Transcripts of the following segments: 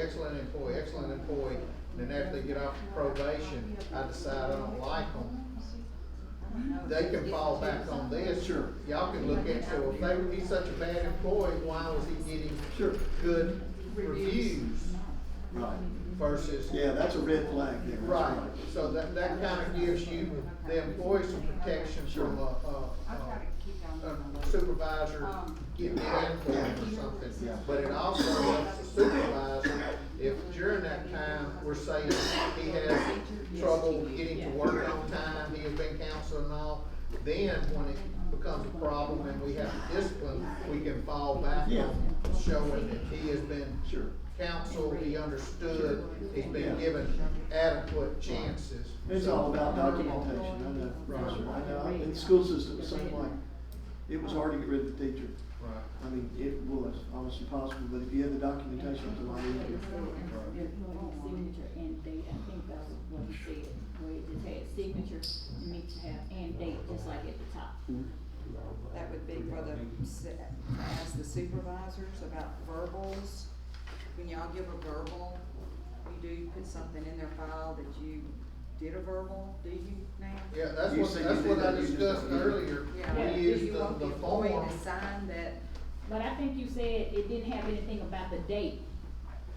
excellent employee, excellent employee, and then after they get off probation, I decide I don't like them, they can fall back on this. Sure. Y'all can look at, so if they, he's such a bad employee, why was he getting Sure. good reviews Right. versus? Yeah, that's a red flag there. that's Right, so that, that kind of gives you, the employee some protection from a, I've got to a- keep down a, on my a list. Um, supervisor getting in for them or something. But it also helps the supervisor, if during that time, we're saying he has trouble getting to work on time, he has been counseled and all, then when it becomes a problem and we have to discipline, we can fall back Yeah. on showing that he has been Sure. counseled, he understood, he's Yeah. been given adequate chances. It's all about documentation, I know, Right. Sure, I know, in the school system, the same way. It was hard to get rid of the teacher, Right. I mean, it was almost impossible, but if you had the documentation, it was a lot easier. Employee signature and date, I think that's what he said, where it just had signature, you need to have and date, just like at the top. That would be for the, su- ask the supervisors about verbals. When y'all give a verbal, you do put something in their file that you did a verbal, do you now? Yeah, that's You what, said that's you what did I that, you just discussed don't use it. earlier. Yeah, do We use you the, want the the employee form. to sign that, But I think you said it didn't have anything about the date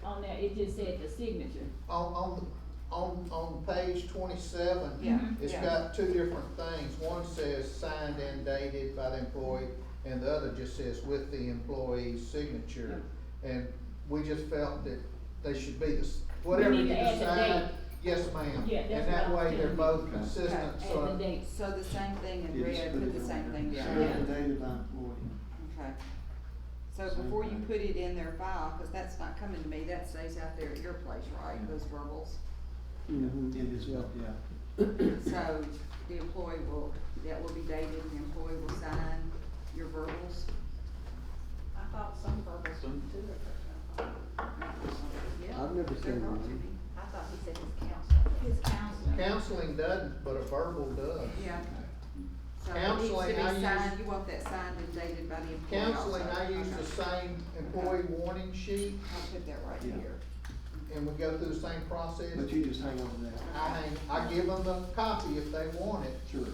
on there, it just said the signature. On, on, on, on page twenty-seven. Yeah, Mm-hmm. It's yeah. got two different things. One says signed and dated by the employee, and the other just says with the employee's signature. And we just felt that they should be the, s- whatever you need to add the decide. date. Yes, ma'am. Yeah, And that's that what I way was they're thinking. both Okay. consistent, And the so. date, so the same thing in You just red, put put it the on same there. thing down. Sure, the date of employee. Okay. So Same before you thing. put it in their file, cause that's not coming to me, that stays out there at your place, right, Yeah. those verbals? Mm-hmm. It is, yeah. So the employee will, that will be dated, the employee will sign your verbals? I thought some verbals Some- too. Yeah. I've never They're seen brought one. to me. I thought he said his counsel. his counselor. Counseling doesn't, but a verbal does. Yeah. So it needs Counseling, to I be use- signed, you want that signed and dated by the employee also. Counseling, I use the Okay. same employee warning sheet, I'll put that right Yeah. here. and we go through the same process. But you just hang on to that, I hang, I give them the copy if they want it, sure.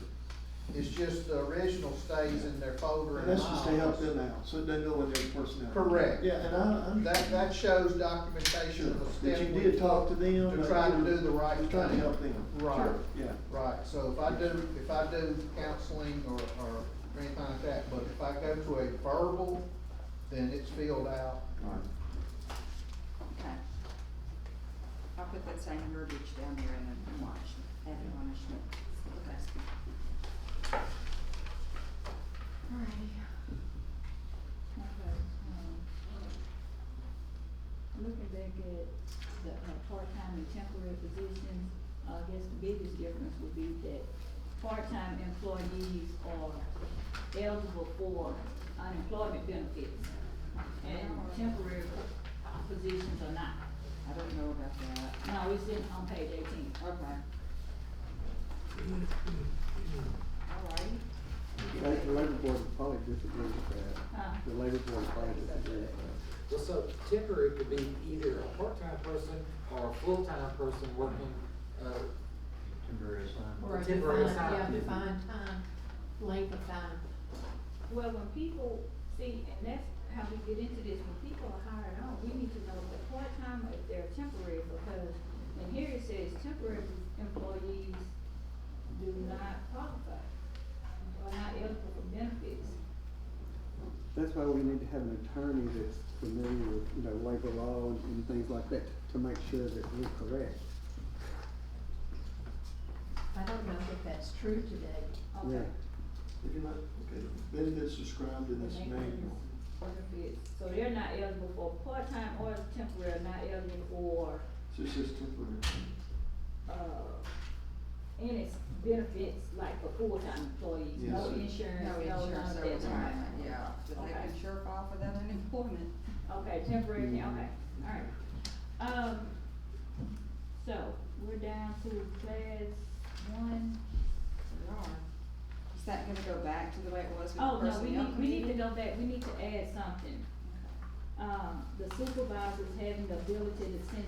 it's just the original stays in their folder and That's to stay up files. there now, so it doesn't go in there personnel. Correct. Yeah, and I, I'm. That, that shows documentation Sure, of the that step. you we did talk to took them. To but try to you do the right were thing. Trying to help them. Right, Sure, Yeah, right, so if I do, if I do counseling or, or anything like that, but if I go to a verbal, then it's filled out. all right. Okay. I'll put that same verbiage down there and then watch, add punishment. Okay. Alrighty. Okay, um, Looking back at the, uh, part-time and temporary positions, I guess the biggest difference would be that part-time employees are eligible for unemployment benefits, and temporary positions are not. I don't know about that. No, it's in, on page eighteen. Okay. Alrighty. La- The labor board would probably disagree with Huh. that. The labor board would probably disagree with Well, so temporary could be either a part-time person or a full-time person working, uh, Temporary assignment. Or a Temporary defined, yeah, assignment. defined time, length of time. Well, when people, see, and that's how we get into this, when people are hired on, we need to know if they're part-time or if they're temporary, because when here it says temporary employees do not qualify, or not eligible for benefits. that. That's why we need to have an attorney that's familiar with, you know, labor law and, and things like that to make sure that we're correct. I don't know if that's true today. Yeah. Okay. If you're not, okay, benefits described in this manual. Benefits, so they're not eligible for part-time or temporary, not eligible for So it's just temporary. uh, and it's benefits like for full-time employees, no Yes. insurance, No no none insurance, of no that. retirement, yeah, but they Okay. can sure file for that unemployment. Okay, temporary, yeah, okay, alright. Um, so, we're down to class one. We are. Is that gonna go back to the way it was with Oh, the no, we personnel need, we need to committee? go back, we need to add something. um, the supervisors having the ability to send